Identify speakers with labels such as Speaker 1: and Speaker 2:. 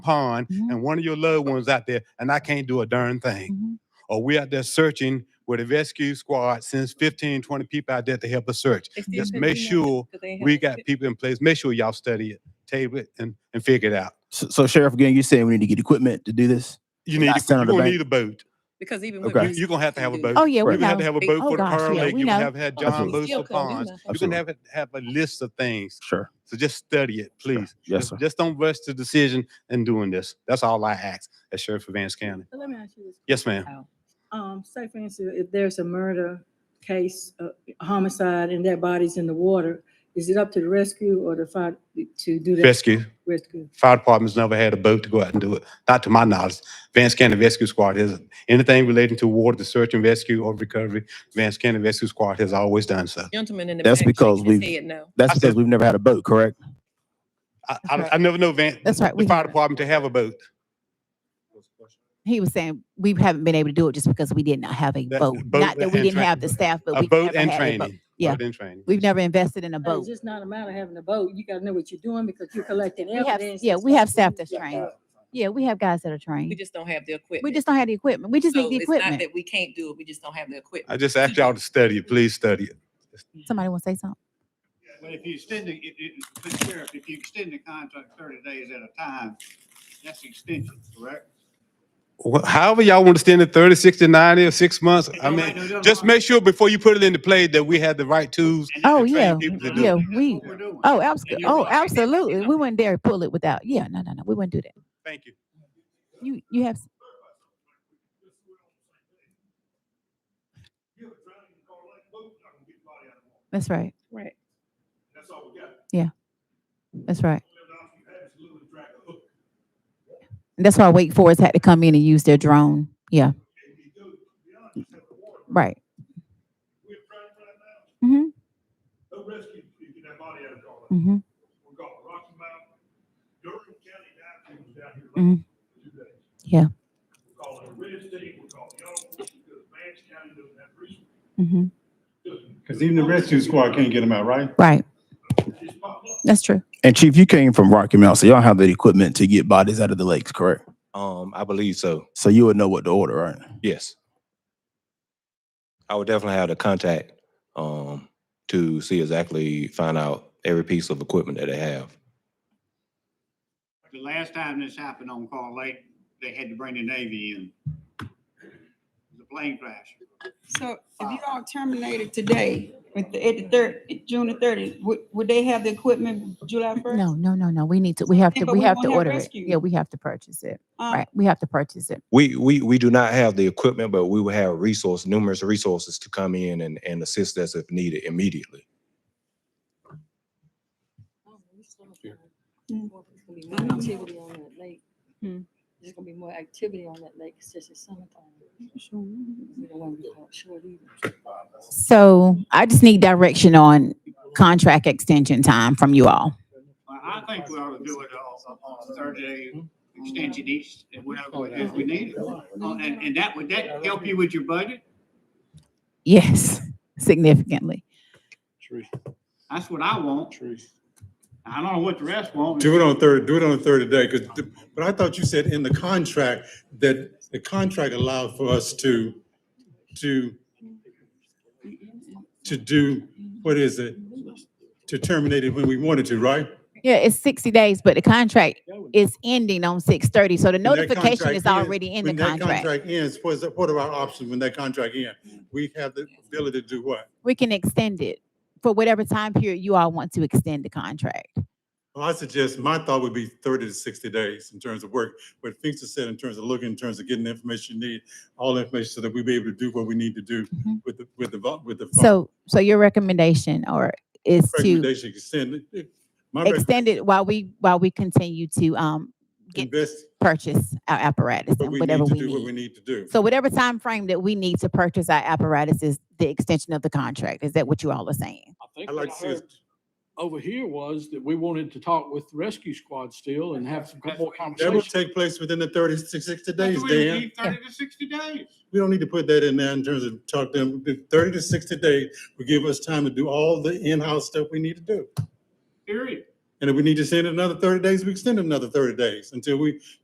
Speaker 1: pond
Speaker 2: Mhm.
Speaker 1: and one of your loved ones out there and I can't do a darn thing.
Speaker 2: Mhm.
Speaker 1: Or we out there searching with a rescue squad, sends 15, 20 people out there to help us search. Just make sure we got people in place. Make sure y'all study it, table it, and, and figure it out.
Speaker 3: So, so Sheriff, again, you saying we need to get equipment to do this?
Speaker 1: You need,
Speaker 3: Not
Speaker 1: you're
Speaker 3: send it to
Speaker 1: gonna
Speaker 3: bank.
Speaker 1: need a boat.
Speaker 4: Because even
Speaker 3: Okay.
Speaker 4: with.
Speaker 1: You're gonna have to have a boat.
Speaker 2: Oh, yeah, we
Speaker 1: You're gonna have to
Speaker 2: know.
Speaker 1: have a boat
Speaker 2: Oh,
Speaker 1: for the
Speaker 2: gosh,
Speaker 1: Pearl
Speaker 2: yeah,
Speaker 1: Lake.
Speaker 2: we
Speaker 1: You're gonna
Speaker 2: know.
Speaker 1: have had John
Speaker 3: Absolutely.
Speaker 1: boats
Speaker 4: Still
Speaker 1: for
Speaker 4: come, we
Speaker 1: ponds.
Speaker 4: know.
Speaker 1: You're gonna
Speaker 3: Absolutely.
Speaker 1: have, have a list of things.
Speaker 3: Sure.
Speaker 1: So just study it, please.
Speaker 3: Yes,
Speaker 1: Just-
Speaker 3: sir.
Speaker 1: Just don't rush the decision in doing this. That's all I ask as Sheriff of Vance County.
Speaker 5: Let me ask you this.
Speaker 1: Yes, ma'am.
Speaker 5: Um, say for instance, if there's a murder case, uh, homicide, and that body's in the water, is it up to the rescue or the fire to do that?
Speaker 1: Rescue.
Speaker 5: Rescue.
Speaker 1: Fire department's never had a boat to go out and do it, not to my knowledge. Vance County Rescue Squad has, anything relating to water, the search and rescue or recovery, Vance County Rescue Squad has always done so.
Speaker 4: Gentleman in the.
Speaker 3: That's
Speaker 4: back
Speaker 3: because
Speaker 4: shaking his
Speaker 3: we've-
Speaker 4: head no.
Speaker 3: That's
Speaker 1: I said-
Speaker 3: because we've never had a boat, correct?
Speaker 1: I, I, I never know Van,
Speaker 2: That's right,
Speaker 1: the
Speaker 2: we
Speaker 1: fire
Speaker 2: haven't.
Speaker 1: department to have a boat.
Speaker 2: He was saying, we haven't been able to do it just because we did not have a
Speaker 1: That-
Speaker 2: boat.
Speaker 1: boat
Speaker 2: Not that we
Speaker 1: and
Speaker 2: didn't
Speaker 1: train-
Speaker 2: have the staff, but
Speaker 1: A
Speaker 2: we.
Speaker 1: boat
Speaker 2: never
Speaker 1: and
Speaker 2: had a boat.
Speaker 1: training.
Speaker 2: Yeah.
Speaker 1: Boat and training.
Speaker 2: We've never invested in a
Speaker 5: So
Speaker 2: boat.
Speaker 5: It's just not a matter of having a boat. You gotta know what you're doing because you're collecting
Speaker 2: We have-
Speaker 5: evidence.
Speaker 2: yeah,
Speaker 5: and
Speaker 2: we have
Speaker 5: stuff.
Speaker 2: staff that's
Speaker 5: Yeah.
Speaker 2: trained. Yeah, we have guys that are
Speaker 4: We
Speaker 2: trained.
Speaker 4: just don't have the equipment.
Speaker 2: We just don't have the equipment. We just
Speaker 4: So
Speaker 2: need the
Speaker 4: it's not
Speaker 2: equipment.
Speaker 4: That we can't do it. We just don't have the equipment.
Speaker 1: I just ask y'all to study it, please study it.
Speaker 2: Somebody want to say something?
Speaker 6: But if you extend the, if, if, Mr. Sheriff, if you extend the contract thirty days at a time, that's extension, correct?
Speaker 1: Wh- However y'all want to stand at 30, 60, 90, or six months, I
Speaker 6: No,
Speaker 1: mean,
Speaker 6: no, no, no.
Speaker 1: just make sure before you put it into play that we had the right tools
Speaker 6: And
Speaker 2: Oh,
Speaker 6: that's-
Speaker 2: yeah,
Speaker 1: train people to do
Speaker 2: yeah,
Speaker 1: it.
Speaker 2: we,
Speaker 6: That's what we're doing.
Speaker 2: oh, absolutely,
Speaker 6: you're
Speaker 2: oh,
Speaker 6: right.
Speaker 2: absolutely. We wouldn't dare pull it without, yeah, no, no, no, we wouldn't do that.
Speaker 1: Thank you.
Speaker 2: You, you have, that's right,
Speaker 4: Right.
Speaker 6: That's all we got.
Speaker 2: that's right. And that's why Wake Forest had to come in and use their drone, yeah. Right. Mm-hmm,
Speaker 6: No rescue, you get that body out of the car.
Speaker 2: mm-hmm.
Speaker 6: We're going to Rocky Mountain, Durham County, dive team was down here
Speaker 2: Mhm.
Speaker 6: last two days.
Speaker 2: Yeah.
Speaker 6: We're calling it Red State, we're calling y'all, because Vance County doesn't have resources.
Speaker 2: Mm-hmm.
Speaker 7: Because even the rescue squad can't get them out, right?
Speaker 2: Right,
Speaker 6: It's popped up.
Speaker 2: that's true.
Speaker 3: And Chief, you came from Rocky Mountain, so y'all have the equipment to get bodies out of the lakes, correct?
Speaker 8: Um, I believe so.
Speaker 3: So you would know what to order, right?
Speaker 8: Yes. I would definitely have the contact um to see exactly find out every piece of equipment that they have.
Speaker 6: The last time this happened on Carl Lake, they had to bring the Navy in. The plane crash.
Speaker 9: So if you all terminated today, at the, at the third, June the thirtieth, would, would they have the equipment July first?
Speaker 2: No, no, no, no, we need to, we have to,
Speaker 9: But
Speaker 2: we
Speaker 9: we
Speaker 2: have
Speaker 9: won't
Speaker 2: to
Speaker 9: have
Speaker 2: order it.
Speaker 9: rescue.
Speaker 2: Yeah, we have to purchase it,
Speaker 9: Um,
Speaker 2: right, we have to purchase it.
Speaker 8: We we we do not have the equipment, but we will have resource, numerous resources to come in and, and assist us if needed immediately.
Speaker 5: There's Activity on that lake. There's gonna be more activity on that lake since it's summertime. We don't wanna be caught short either.
Speaker 2: So I just need direction on contract extension time from you all.
Speaker 6: I I think we ought to do it on, on thirty day extension each, and whatever, it is we need it. Oh, And, and that, would that help you with your budget?
Speaker 2: Yes, significantly.
Speaker 6: That's what I want. I don't know what the rest want.
Speaker 7: Do it on third, do it on the third day, because, but I thought you said in the contract that the contract allowed for us to, to, to do, what is it? To terminate it when we wanted to, right?
Speaker 2: Yeah, it's sixty days, but the contract is ending on six thirty, so the
Speaker 7: When that
Speaker 2: notification
Speaker 7: contract
Speaker 2: is
Speaker 7: ends-
Speaker 2: already in the
Speaker 7: When that
Speaker 2: contract.
Speaker 7: contract ends, what's, what are our options when that contract ends? We have the ability to do what?
Speaker 2: We can extend it for whatever time period you all want to extend the contract.
Speaker 7: Oh. Well, I suggest, my thought would be thirty to sixty days in terms of work, what Finks has said in terms of looking, in terms of getting the information you need, all the information so that we be able to do what we need to do
Speaker 2: Mhm.
Speaker 7: with the, with the, vol- with the. fund.
Speaker 2: So, so your recommendation or is to
Speaker 7: Recommendation extend, it- my rec-
Speaker 2: extend it while we, while we continue to, um, get-
Speaker 7: invest,
Speaker 2: purchase our apparatus
Speaker 7: but
Speaker 2: and
Speaker 7: we
Speaker 2: whatever
Speaker 7: need to
Speaker 2: we
Speaker 7: do what we
Speaker 2: need.
Speaker 7: need to do.
Speaker 2: So whatever time frame that we need to purchase our apparatus is the extension of the contract. Is that what you all are saying?
Speaker 10: I think
Speaker 7: I
Speaker 10: what
Speaker 7: like
Speaker 10: I
Speaker 7: to see us
Speaker 10: heard over here was that we wanted to talk with rescue squad still and have some co- more
Speaker 7: That will
Speaker 10: conversation.
Speaker 7: take place within the 30 to 60 days,
Speaker 6: That's what we
Speaker 7: Dan.
Speaker 6: need, Thirty to sixty days.
Speaker 7: We don't need to put that in there in terms of talk to them, The thirty to sixty days will give us time to do all the in-house stuff we need to do.
Speaker 6: Period. And if we need to extend it another thirty days, we extend it another thirty days until we